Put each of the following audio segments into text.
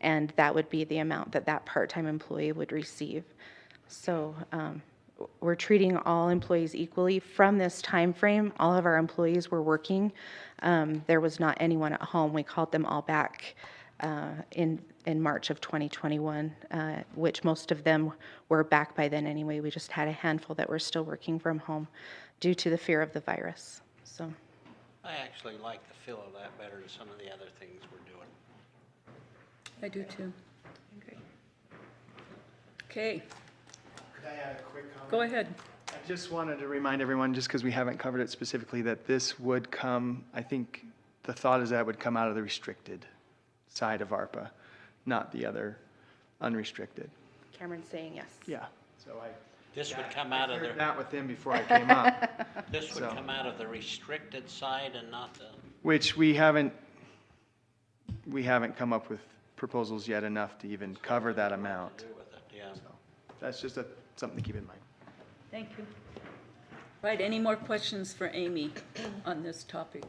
and that would be the amount that that part-time employee would receive. So um, w- we're treating all employees equally. From this time frame, all of our employees were working. Um, There was not anyone at home. We called them all back uh, in, in March of 2021, uh, which most of them were back by then anyway. We just had a handful that were still working from home due to the fear of the virus, so. I actually like the feel of that better than some of the other things we're doing. I do too. Okay, Could I add a quick comment? go ahead. I just wanted to remind everyone, just because we haven't covered it specifically, that this would come, I think, the thought is that would come out of the restricted side of ARPA, not the other unrestricted. Cameron's saying yes. Yeah, so I. This would come out of heard the, that with them before I came up, this would so. come out of the restricted side and not the, which we haven't, we haven't come up with proposals yet enough to even cover that amount. do with it, yeah. That's just a, something to keep in mind. Thank you. Right, any more questions for Amy on this topic?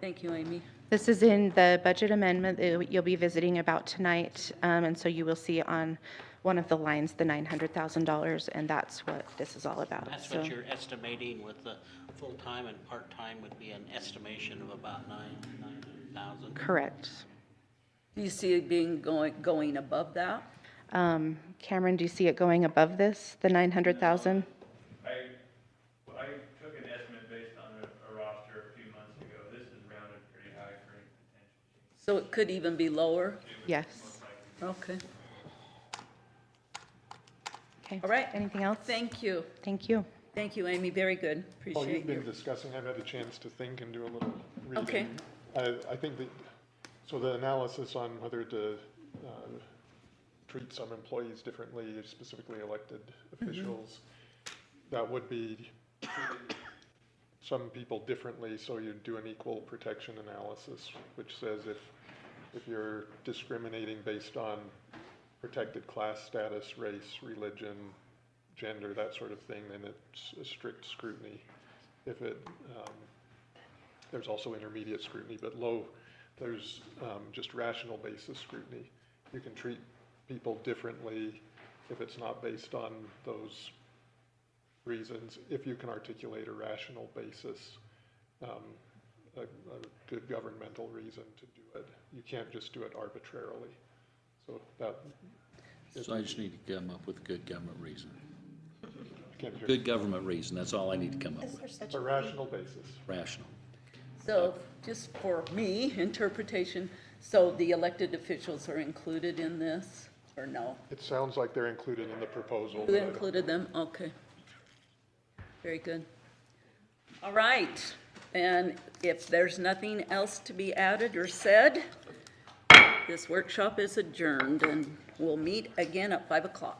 Thank you, Amy. This is in the budget amendment that you'll be visiting about tonight, um, and so you will see on one of the lines, the $900,000, and that's what this is all about. That's So- what you're estimating with the full-time and part-time would be an estimation of about nine, nine hundred thousand. Correct. Do you see it being, going, going above that? Um, Cameron, do you see it going above this, the 900,000? I, well, I took an estimate based on a, a roster a few months ago. This is rounded pretty high for any potential. So it could even be lower? Yes. Okay, Okay. All right. Anything else? thank you. Thank you. Thank you, Amy, very good. Well, Oh, you've Appreciate been you. discussing, I've had a chance to think and do a little reading. Okay. I, I think that, so the analysis on whether to uh, treat some employees differently, specifically elected Mm-hmm. officials, that would be treating some people differently, so you'd do an equal protection analysis, which says if, if you're discriminating based on protected class status, race, religion, gender, that sort of thing, then it's a strict scrutiny. If it, um, there's also intermediate scrutiny, but low, there's, um, just rational basis scrutiny. You can treat people differently if it's not based on those reasons, if you can articulate a rational basis, um, a, a good governmental reason to do it. You can't just do it arbitrarily. So that, So I just need to come up with a good government reason. can't do it. Good government reason, that's all I need to come up with, It's a rational basis. rational. So, just for me, interpretation, so the elected officials are included in this, or no? It sounds like they're included in the proposal. You but I don't- included them, okay. Very good. All right, and if there's nothing else to be added or said, this workshop is adjourned, and we'll meet again at 5 o'clock.